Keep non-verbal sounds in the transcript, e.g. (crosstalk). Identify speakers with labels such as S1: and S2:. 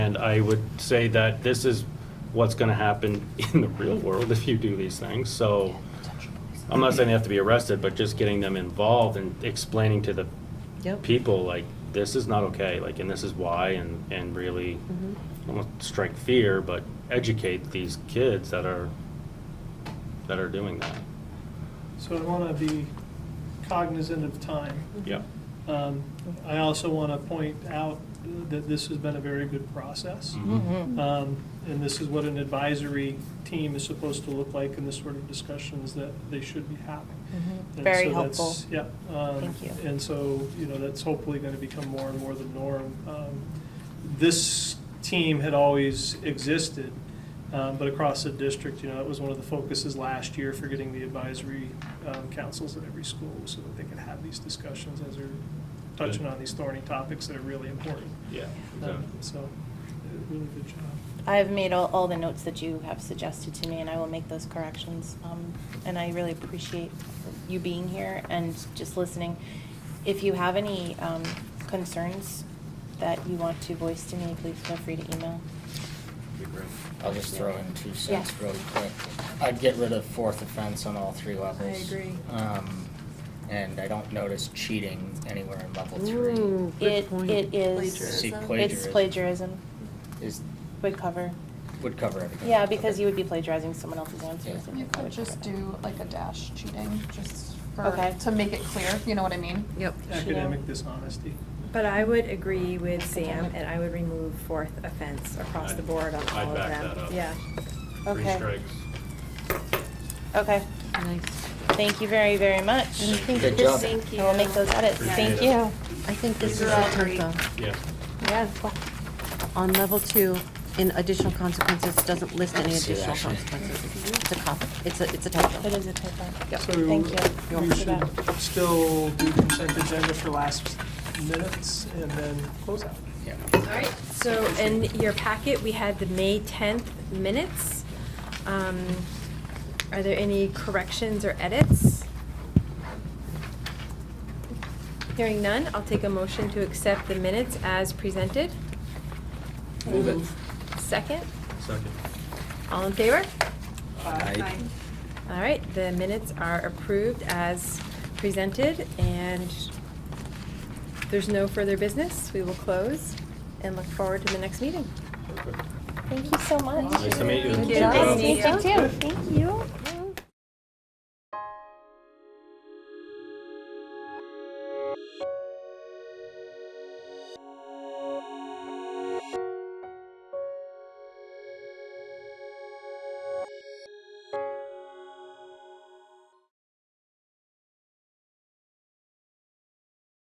S1: And I would say that this is what's going to happen (laughs) in the real world if you do these things. So I'm not saying they have to be arrested, but just getting them involved and explaining to the
S2: Yep.
S1: people, like, this is not okay, like, and this is why, and, and really
S2: Mm-hmm.
S1: almost strike fear, but educate these kids that are, that are doing that.
S3: Mm-hmm.
S4: So I want to be cognizant of time.
S1: Yeah.
S4: Um, I also want to point out that this has been a very good process.
S2: Mm-hmm.
S4: Um, And this is what an advisory team is supposed to look like in the sort of discussions that they should be having.
S2: Mm-hmm.
S4: And
S5: Very
S4: so that's-
S5: helpful.
S4: Yeah. um,
S5: Thank you.
S4: And so, you know, that's hopefully going to become more and more the norm. Um, This team had always existed, um, but across the district, you know, that was one of the focuses last year for getting the advisory um, councils at every school so that they could have these discussions as they're touching
S1: Good.
S4: on these thorny topics that are really important.
S1: Yeah,
S4: Um,
S1: exactly.
S4: So, uh, really good job.
S5: I've made all, all the notes that you have suggested to me, and I will make those corrections. Um, and I really appreciate you being here and just listening. If you have any, um, concerns that you want to voice to me, please feel free to email.
S6: I'll just throw in two cents
S5: Yeah.
S6: really quick. I'd get rid of fourth offense on all three levels. I agree. Um, and I don't notice cheating anywhere in level
S7: Oh,
S6: three.
S5: It, it is,
S6: See,
S5: it's plagiarism,
S6: is,
S5: would cover.
S6: would cover everything.
S5: Yeah, because
S6: Okay.
S5: you would be plagiarizing someone else's answers. and
S7: You
S5: that
S7: could
S5: would
S7: just
S5: cover it.
S7: do like a dash cheating, just
S5: Okay.
S7: for, to make it clear, you know what I mean?
S2: Yep.
S4: Academic dishonesty.
S3: But I would agree with Sam, and I would remove fourth offense across the board on
S1: I'd
S3: all of
S1: back
S3: them.
S1: that up.
S3: Yeah.
S1: Three
S5: Okay.
S1: strikes.
S5: Okay,
S2: Nice.
S5: thank you very, very much.
S2: And I think
S6: Good
S2: this,
S6: job.
S5: I will make those edits.
S1: Appreciate
S5: Thank
S1: it.
S5: you.
S2: I think this is
S7: These
S2: a
S7: are all
S2: tough
S7: great.
S2: one.
S1: Yeah.
S2: Yeah. On level two, in additional consequences, doesn't list any
S6: See
S2: additional
S6: that.
S2: consequences. It's a cop, it's a, it's a typo.
S5: It is a typo.
S2: Yep.
S4: So
S5: Thank you.
S4: We
S5: You're
S4: should
S5: welcome.
S4: still do consent agenda for last minutes and then close out.
S6: Yeah.
S3: All right, so in your packet, we had the May 10th minutes. Um, Are there any corrections or edits? Hearing none, I'll take a motion to accept the minutes as presented.
S6: Move it.
S3: Second,
S1: Second.
S3: all in favor?
S6: Aye.
S3: All right, the minutes are approved as presented, and there's no further business. We will close and look forward to the next meeting.
S1: Perfect.
S5: Thank you so much.
S1: Nice to meet you.
S5: Good
S1: Thank you.
S5: job.
S1: Nice to
S5: Nice
S1: meet
S5: to meet you too. Thank you.